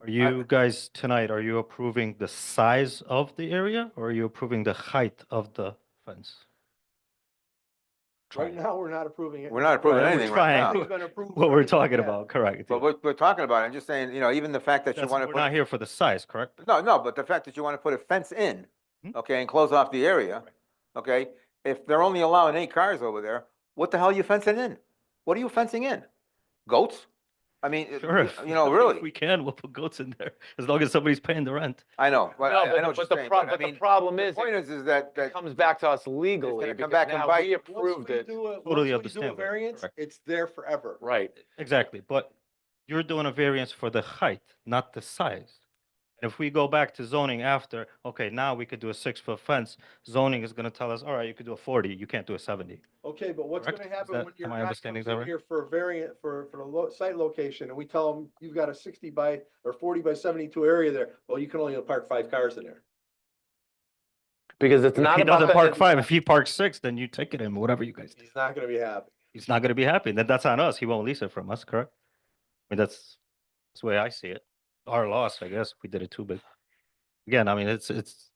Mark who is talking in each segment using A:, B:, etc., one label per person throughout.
A: Are you guys tonight, are you approving the size of the area or are you approving the height of the fence?
B: Right now, we're not approving it.
C: We're not approving
A: Right, we're
C: anything right
A: trying.
C: now.
B: It's been approved
A: What we're
B: already.
A: talking
B: Yeah.
A: about, correct.
C: But we're, we're talking about it. I'm just saying, you know, even the fact that you
A: That's-
C: want to
A: We're not
C: put,
A: here for the size, correct?
C: no, no, but the fact that you want to put a fence in,
A: Mhm.
C: okay, and close off the area, okay? If they're only allowing eight cars over there, what the hell are you fencing in? What are you fencing in? Goats? I mean, it-
A: Sure. if-
C: you know,
A: if
C: really,
A: we can, we'll put goats in there as long as somebody's paying the rent.
C: I know, but
D: No,
C: I I know what you're
D: the
C: saying,
D: pro-
C: but I
D: but the
C: mean,
D: problem
C: the
D: is,
C: point
D: it
C: is, is that, that,
D: comes back to us legally
C: come
D: because
C: back and
D: now
C: bite.
D: we
C: Once
B: Once
D: approved
B: we
D: it.
B: do a- once
A: Totally
B: we do a
A: understand that,
B: Variance,
A: correct.
B: it's there forever.
D: Right.
A: Exactly, but you're doing a variance for the height, not the size. And if we go back to zoning after, okay, now we could do a six-foot fence, zoning is gonna tell us, all right, you could do a forty, you can't do a seventy.
B: Okay, but what's
A: Correct.
B: gonna
A: Is
B: happen
A: that-
B: when your
A: am I
B: guy
A: understanding
B: comes
A: that
B: in
A: right?
B: here for a variant, for, for the lo- site location, and we tell them, you've got a sixty by, or forty by seventy-two area there, well, you can only park five cars in there.
D: Because it's
A: If
D: not
A: he
D: about.
A: doesn't
D: the-
A: park five, if he parks six, then you ticket him, whatever you guys do.
B: He's not gonna be happy.
A: He's not gonna be happy, then that's on us, he won't lease it from us, correct? I mean, that's, that's the way I see it. Our loss, I guess, if we did it too big. Again, I mean, it's, it's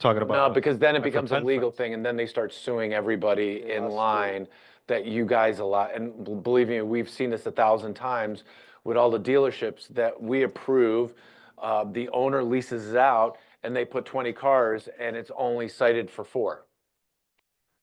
A: talking about.
D: No, because then it
A: like a
D: becomes a
A: fence
D: legal
A: fence.
D: thing and then they start suing everybody
B: Yeah,
D: in
B: that's true.
D: line that you guys allow. And b- believe me, we've seen this a thousand times with all the dealerships that we approve. uh, The owner leases it out and they put 20 cars and it's only cited for four.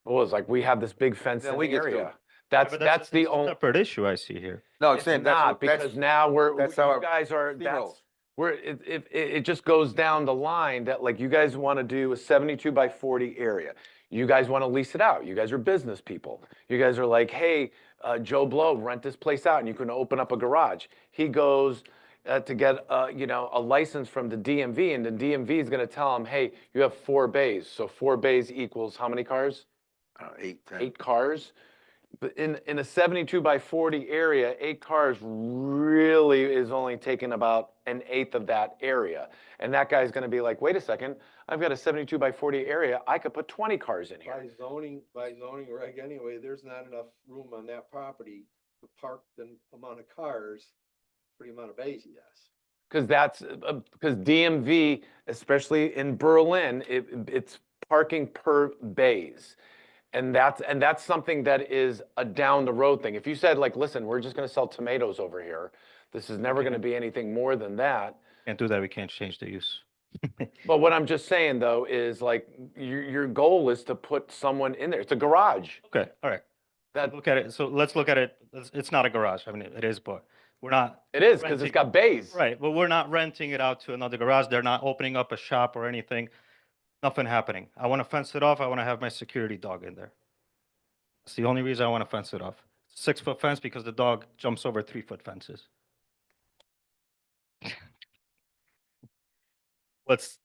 D: Well, it's like, we have this big fence
C: Then
D: in
C: we
D: the
C: get sued.
D: area.
A: Yeah,
D: That's,
A: but
D: that's
A: a-
D: the
A: it's a
D: only.
A: Separate issue I see here.
C: no, I'm
D: It's
C: saying, that's,
D: not
C: what- that's.
D: because now we're,
C: that's
D: you
C: how our
D: guys are,
C: steam
D: that's,
C: rolls.
D: we're, it, it, it it just goes down the line that like you guys want to do a seventy-two by forty area. You guys want to lease it out. You guys are business people. You guys are like, hey, uh, Joe Blow, rent this place out and you can open up a garage. He goes uh, to get, uh, you know, a license from the DMV and the DMV is going to tell him, hey, you have four bays. So four bays equals how many cars?
C: I don't know, Eight, ten.
D: eight cars. But in, in a seventy-two by forty area, eight cars really is only taking about an eighth of that area. And that guy's gonna be like, wait a second, I've got a seventy-two by forty area, I could put twenty cars in
B: By
D: here.
B: zoning, by zoning reg anyway, there's not enough room on that property to park the amount of cars for the amount of bays he has.
D: Cause that's, uh, um, because DMV, especially in Berlin, it, it's parking per bays. And that's, and that's something that is a down the road thing. If you said like, listen, we're just gonna sell tomatoes over here, this is never gonna be anything more than that.
A: Can't do that, we can't change the use.
D: But what I'm just saying though is like your your goal is to put someone in there. It's a garage.
A: Okay, all right.
D: That
A: Look at it, so let's look at it, it's, it's not a garage, I mean, it is, but we're not,
D: it is because
A: Renting.
D: it's got bays.
A: right, but we're not renting it out to another garage, they're not opening up a shop or anything. Nothing happening. I want to fence it off, I want to have my security dog in there. It's the only reason I want to fence it off. Six-foot fence because the dog jumps over three-foot fences. What's,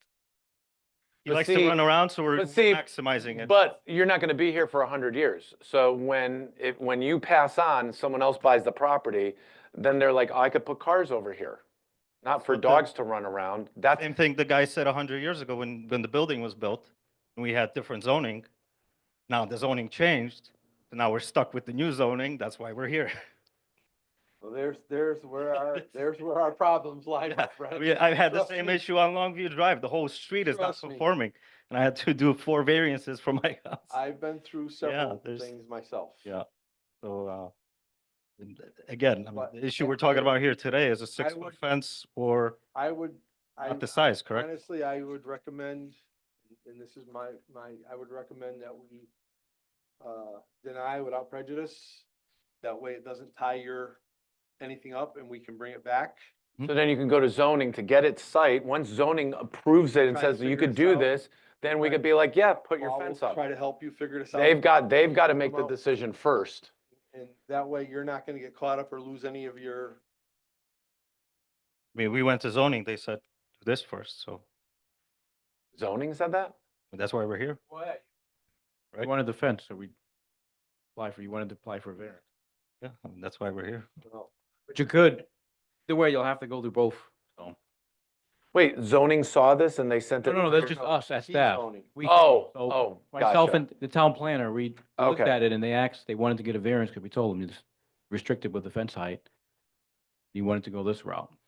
A: he
D: But
A: likes to
D: see-
A: run around, so we're
D: but see,
A: maximizing it.
D: But you're not going to be here for a hundred years. So when it when you pass on, someone else buys the property, then they're like, "Oh, I could put cars over here, not for
A: But the-
D: dogs to run around. That's
A: Same thing the guy said a hundred years ago when, when the building was built, and we had different zoning. Now the zoning changed, and now we're stuck with the new zoning, that's why we're here.
B: Well, there's, there's where our, there's where our problems lie, my
A: I
B: friend.
A: mean, I've had the
B: Trust
A: same
B: me.
A: issue on Longview Drive, the whole street is not
B: Trust me.
A: conforming, and I had to do four variances for my house.
B: I've been through several
A: there's-
B: things myself.
A: Yeah. So, uh, and th- again, I mean,
B: But
A: the issue
B: I-
A: we're talking
B: I-
A: about here today is a six-foot
B: would-
A: fence or
B: I would. I-
A: not the size, correct?
B: Honestly, I would recommend, and this is my, my, I would recommend that we uh, deny without prejudice. That way it doesn't tie your, anything up and we can bring it back.
D: so then you can go to zoning to get its site. Once zoning approves it and
B: Try to
D: says that you
B: figure this
D: could do
B: out.
D: this, then we
B: Right.
D: could be like, yeah, put your
B: Paul will
D: fence up.
B: Try to help you figure this out.
D: They've got they've got to
B: Come
D: make the
B: out.
D: decision first.
B: And that way you're not gonna get caught up or lose any of your,
A: I mean, we went to zoning, they said, do this first, so
D: Zoning said that?
A: that's why we're here.
E: You
A: Right.
E: wanted the fence, so we apply for, you wanted to apply for a variance.
A: Yeah, I mean, that's why we're here.
B: well,
E: But you could, either way, you'll have to go through both. No,
D: Wait, zoning saw this and they sent
E: no,
D: it?
E: no, that's just
B: no,
E: us, that's
B: key
E: staff.
B: zoning.
E: We-
D: Oh,
E: so
D: oh,
E: Myself
D: gotcha.
E: and the town planner, we we looked
D: Okay.
E: at it and they asked, they wanted to get a variance because we told them it's restricted with the fence height. You wanted to go this route.